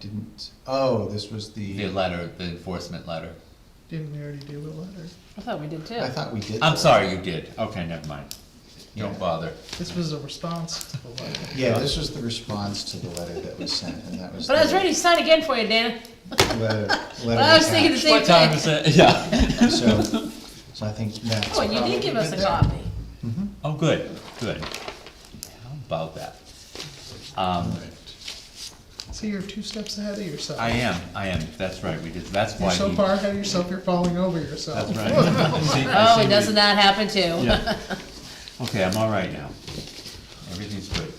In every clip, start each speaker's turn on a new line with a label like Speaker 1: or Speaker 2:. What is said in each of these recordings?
Speaker 1: didn't, oh, this was
Speaker 2: The
Speaker 1: the,
Speaker 2: letter, the enforcement letter.
Speaker 3: Didn't we already do a letter?
Speaker 4: I thought we did too.
Speaker 1: I thought we did.
Speaker 2: I'm
Speaker 1: that.
Speaker 2: sorry, you did. Okay, never mind. Don't
Speaker 1: Yeah.
Speaker 2: bother.
Speaker 3: This was a response to the letter.
Speaker 1: Yeah, this was the response to the letter that was sent, and that was.
Speaker 4: But I was
Speaker 1: the
Speaker 4: ready to sign again for you, Dana.
Speaker 1: Letter,
Speaker 4: But I was thinking
Speaker 1: letter
Speaker 4: the same
Speaker 2: What time is
Speaker 4: thing.
Speaker 2: it? Yeah.
Speaker 1: attached, so, so I think that's
Speaker 4: Oh, and you
Speaker 1: probably
Speaker 4: did give us a
Speaker 1: good there.
Speaker 4: copy.
Speaker 2: Oh, good, good. How about that? Um,
Speaker 3: See, you're two steps ahead of yourself.
Speaker 2: I am, I am. That's right, we did, that's why
Speaker 3: You're
Speaker 2: he.
Speaker 3: so far ahead of yourself, you're falling over yourself.
Speaker 2: That's right. I see- I
Speaker 4: Oh,
Speaker 2: see
Speaker 4: it doesn't
Speaker 2: we-
Speaker 4: that happen too?
Speaker 2: Yeah. Okay, I'm all right now. Everything's good.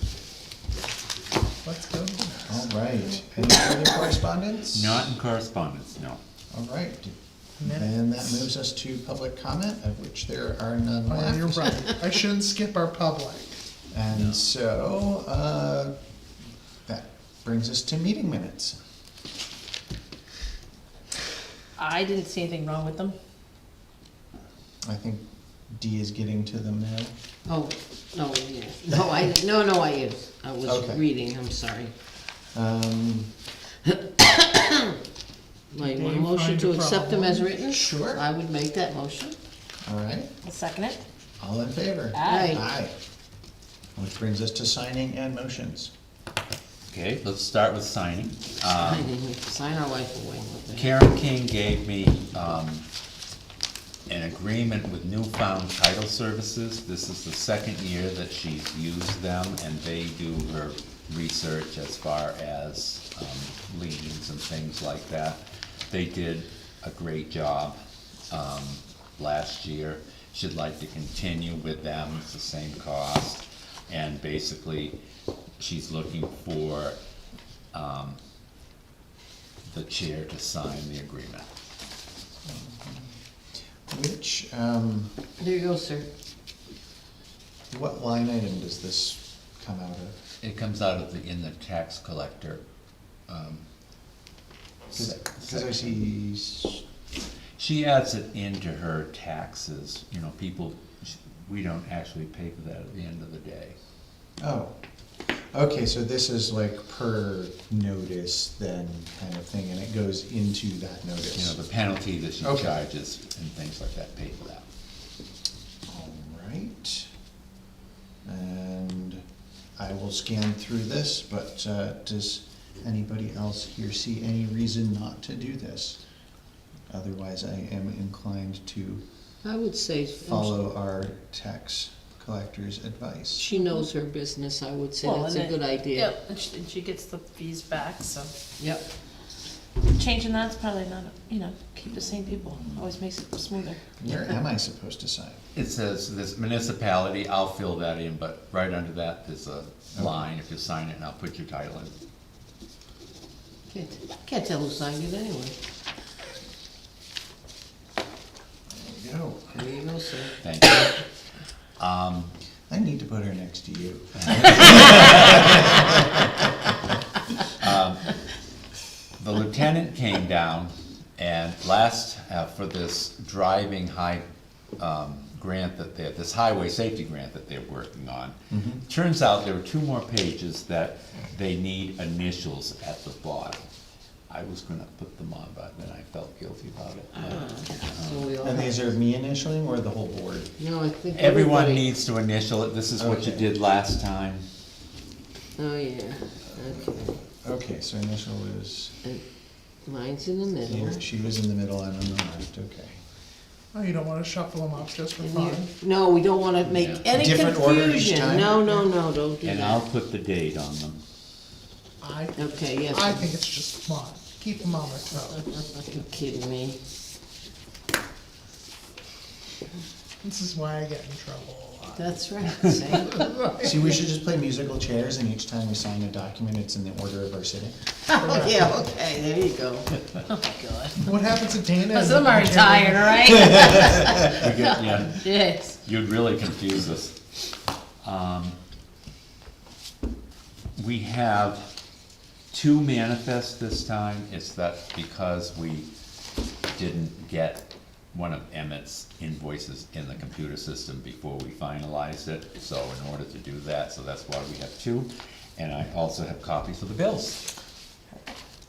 Speaker 3: Let's go.
Speaker 1: All right, any further correspondence?
Speaker 2: Not in correspondence, no.
Speaker 1: All right, and that moves us to public comment, of which there are none
Speaker 3: Oh,
Speaker 1: left.
Speaker 3: yeah, you're right. I shouldn't skip our public.
Speaker 1: And so, uh, that brings us to meeting minutes.
Speaker 4: I didn't see anything wrong with them.
Speaker 1: I think Dee is getting to them now.
Speaker 5: Oh, no, yeah, no, I, no, no, I is, I was
Speaker 1: Okay.
Speaker 5: reading, I'm sorry.
Speaker 1: Um,
Speaker 5: Like,
Speaker 3: Did
Speaker 5: want a
Speaker 3: you
Speaker 5: motion
Speaker 3: find
Speaker 5: to
Speaker 3: a
Speaker 5: accept them as
Speaker 3: problem?
Speaker 5: written?
Speaker 1: Sure.
Speaker 5: I would make that motion.
Speaker 1: all right,
Speaker 4: I'll second it.
Speaker 1: all in favor?
Speaker 4: Aye.
Speaker 1: Aye. Which brings us to signing and motions.
Speaker 2: Okay, let's start with signing.
Speaker 5: I
Speaker 1: Ah.
Speaker 2: Um,
Speaker 5: didn't sign our life away with it.
Speaker 2: Karen King gave me, um, an agreement with Newfound Title Services. This is the second year that she's used them, and they do her research as far as, um, liens and things like that. They did a great job, um, last year. She'd like to continue with them, it's the same cost. And basically, she's looking for, um, the chair to sign the agreement.
Speaker 1: Which, um,
Speaker 5: There you go, sir.
Speaker 1: what line item does this come out of?
Speaker 2: It comes out of the, in the tax collector. um, sec-
Speaker 1: Because I see,
Speaker 2: section.
Speaker 1: s-
Speaker 2: She adds it into her taxes, you know, people, sh- we don't actually pay for that at the end of the day.
Speaker 1: oh, okay, so this is like per notice then kind of thing, and it goes into that
Speaker 2: You know,
Speaker 1: notice.
Speaker 2: the penalty that she
Speaker 1: Okay.
Speaker 2: charges and things like that, pay for that.
Speaker 1: All right. And I will scan through this, but uh, does anybody else here see any reason not to do this? Otherwise, I am inclined to
Speaker 5: I would say,
Speaker 1: follow our tax collector's advice.
Speaker 5: she knows her business, I would say
Speaker 4: Well,
Speaker 5: that's
Speaker 4: and
Speaker 5: a good
Speaker 4: it-
Speaker 5: idea.
Speaker 4: Yep, and she, and she gets the fees back, so
Speaker 5: Yep.
Speaker 4: changing that's probably not, you know, keep the same people, always makes it smoother.
Speaker 1: Where am I supposed to sign?
Speaker 2: It says this municipality, I'll fill that in, but right under that, there's a line, if you sign it, and I'll put your title in.
Speaker 5: Can't, can't tell who signed it anyway.
Speaker 1: There you go.
Speaker 5: There you go, sir.
Speaker 2: Thank you. Um,
Speaker 1: I need to put her next to you.
Speaker 2: The lieutenant came down and last, uh, for this driving high, um, grant that they, this highway safety grant that they're working on. Turns out there were two more pages that they need initials at the bottom. I was gonna put them on, but then I felt guilty about
Speaker 5: Uh-huh.
Speaker 2: it.
Speaker 5: Ah, So we all,
Speaker 1: And these are me initialing or the whole board?
Speaker 5: no, I think
Speaker 2: Everyone
Speaker 5: everybody-
Speaker 2: needs to initial it, this is what you
Speaker 1: Okay.
Speaker 2: did last time.
Speaker 5: Oh, yeah, okay.
Speaker 1: Okay, so initial is,
Speaker 5: And Mine's in the middle.
Speaker 1: here. she was in the middle, I'm on the left, okay.
Speaker 3: Oh, you don't wanna shuffle them up just for
Speaker 5: And
Speaker 3: fun?
Speaker 5: you- No, we don't wanna make
Speaker 2: Yeah.
Speaker 5: any
Speaker 1: Different order each
Speaker 5: confusion.
Speaker 1: time?
Speaker 5: No, no, no, don't do
Speaker 2: And I'll
Speaker 5: that.
Speaker 2: put the date on them.
Speaker 3: I,
Speaker 5: Okay, yes.
Speaker 3: I think it's just fun. Keep them on their toes.
Speaker 5: Are you kidding me?
Speaker 3: This is why I get in trouble a lot.
Speaker 5: That's right, see?
Speaker 1: See, we should just play musical chairs, and each time we sign a document, it's in the order of our sitting.
Speaker 5: Oh, yeah, okay, there you go.
Speaker 4: Oh my god.
Speaker 3: What happens to Dana? and-
Speaker 4: Some are tired, all right?
Speaker 2: We get- yeah.
Speaker 4: Yes.
Speaker 2: You'd really confuse us. Um, We have two manifests this time, it's that because we didn't get one of Emmett's invoices in the computer system before we finalized it, so in order to do that, so that's why we have two. And I also have copies of the bills.